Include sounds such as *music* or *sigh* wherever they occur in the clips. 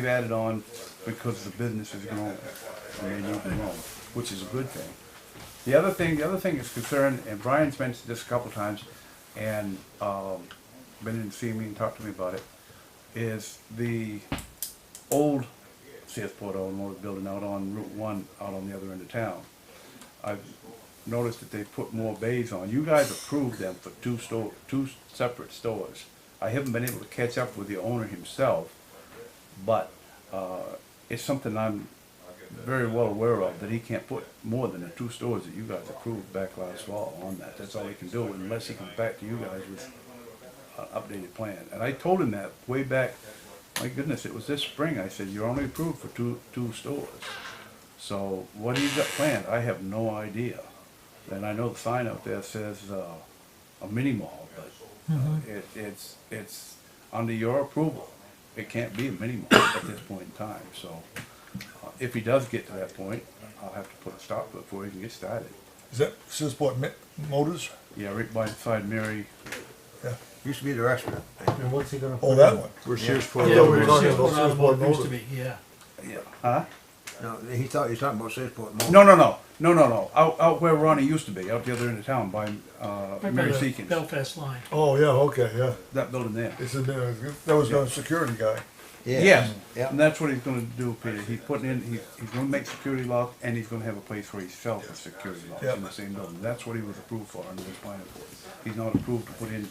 They've added on because the business is growing, and they need to grow, which is a good thing. The other thing, the other thing is concerned, and Brian's mentioned this a couple times, and, um, been in to see me and talked to me about it, is the old CS Port Automotive building out on Route One, out on the other end of town. I've noticed that they put more bays on. You guys approved them for two store, two separate stores. I haven't been able to catch up with the owner himself, but uh, it's something I'm very well aware of, that he can't put more than the two stores that you guys approved back last fall on that. That's all he can do unless he comes back to you guys with an updated plan. And I told him that way back, my goodness, it was this spring. I said, you're only approved for two, two stores. So what he's got planned, I have no idea. And I know the sign up there says, uh, a mini mall, but, Uh-huh. uh, it, it's, it's under your approval. It can't be a mini mall at this point in time, so, uh, if he does get to that point, I'll have to put a stop to it before he can get started. Is that Sisport Mi- Motors? Yeah, right by side Mary, Yeah. Used to be the restaurant. And what's he gonna? Oh, that one. We're Sears Port Yeah, we're Automotive. talking about Searsport used to be, yeah. yeah, huh? No, he thought you were talking about Sixport Mall. No, no, no, no, no, no, out, out where Ronnie used to be, out the other end of town by, uh, Right by Mary the Seekins, Belfast line. Oh, yeah, okay, yeah. that building there. It's in there. That was the security guy. Yes, Yeah. and that's what he's gonna do, Peter, he's putting in, he's, he's gonna make security lock, and he's gonna have a place where he sells the security locks in the Yeah. same building, that's what he was approved for under his planning board. He's not approved to put in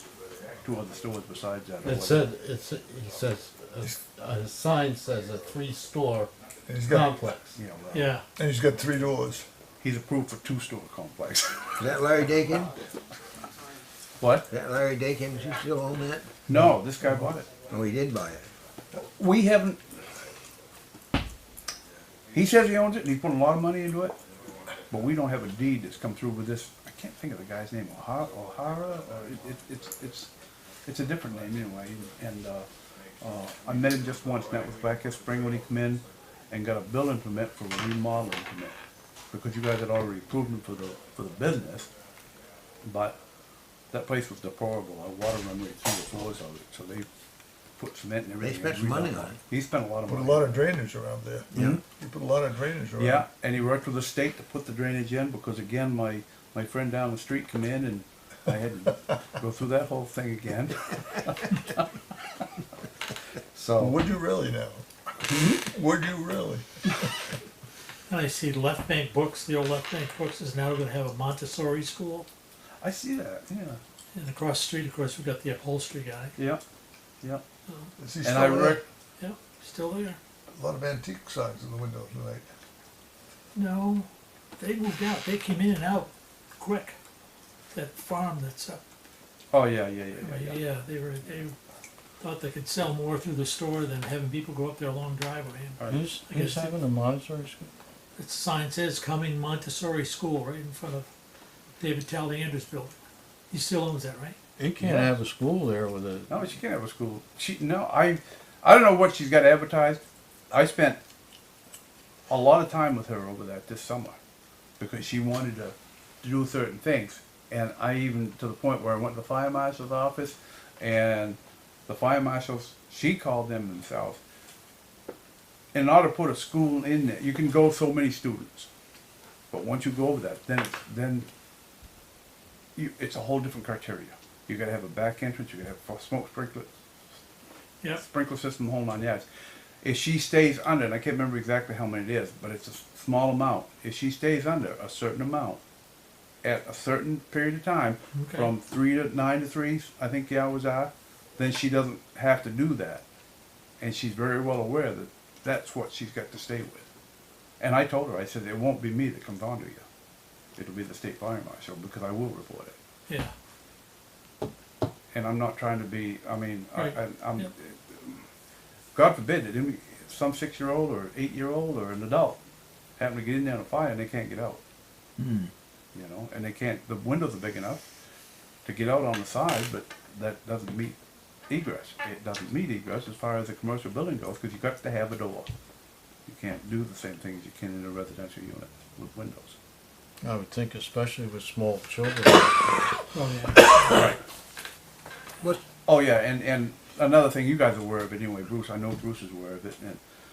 two other stores besides that. or It said, it's, it says, a, a sign says a three-store And he's got, complex. whatever. Yeah, well, Yeah, and he's got three doors. he's approved for two store complex. Is that Larry Dakin? What? Is that Larry Dakin? Is he still on that? *laughs* No, this guy bought it. Oh, he did buy it. We haven't. He says he owns it, and he put a lot of money into it, but we don't have a deed that's come through with this. I can't think of the guy's name, O'Hara, O'Hara, or it, it, it's it's it's a different name anyway. And uh, uh, I met him just once, and that was back this spring when he came in and got a building permit for a remodeling permit because you guys had already approved him for the for the business, but that place was deplorable. Our water run right through the floors of it, so they put cement and everything. spent and some money redone on it. He spent a lot of Put a money. lot of drainage around there. Yeah. He put a lot of drainage around. Yeah, and he worked with the state to put the drainage in, because again, my, my friend down the street come in and I had to go through that whole thing again. *laughs* So, Would you really now? Would you really? and I see Left Bank Books, the old Left Bank Books is now gonna have a Montessori school. I see that, yeah, And across the street, of course, we've got the upholstery guy. yeah, yeah. Is he And I still there? rec- Yeah, still there. A lot of antique signs in the windows tonight. No, they moved out. They came in and out quick. That farm that's up, Oh, yeah, yeah, yeah, yeah, yeah. yeah, they were, they thought they could sell more through the store than having people go up their long driveway. And All right. Who's, I who's guess- having a Montessori school? The sign says coming Montessori School right in front of David Talliander's building. He still owns that, right? You can't Yeah. have a school there with a, No, she can't have a school. She, no, I, I don't know what she's got advertised. I spent a lot of time with her over that this summer because she wanted to, to do certain things. And I even, to the point where I went to the fire marshal's office and the fire marshals, she called them themselves. In order to put a school in there, you can go so many students. But once you go over that, then, then you, it's a whole different criteria. You gotta have a back entrance, you gotta have a smoke sprinkler, Yep. sprinkler system, the whole nine yards. If she stays under, and I can't remember exactly how many it is, but it's a s- small amount, if she stays under a certain amount at a certain period of time, Okay. from three to nine to three, I think the hours are, then she doesn't have to do that. And she's very well aware that that's what she's got to stay with. And I told her, I said, it won't be me that comes on to you. It'll be the state fire marshal because I will report it Yeah. and I'm not trying to be, I mean, I, Right. I, I'm, Yep. God forbid that any- some six-year-old or eight-year-old or an adult happen to get in there on a fire and they can't get out. You know, and they can't, the windows are big enough to get out on the side, but that doesn't meet egress. It doesn't meet egress as far as a commercial building goes, because you've got to have a door. You can't do the same thing as you can in a residential unit with windows. I would think especially with small children. Oh, yeah. What? Oh yeah, and and another thing you guys are aware of anyway, Bruce. I know Bruce is aware of it, and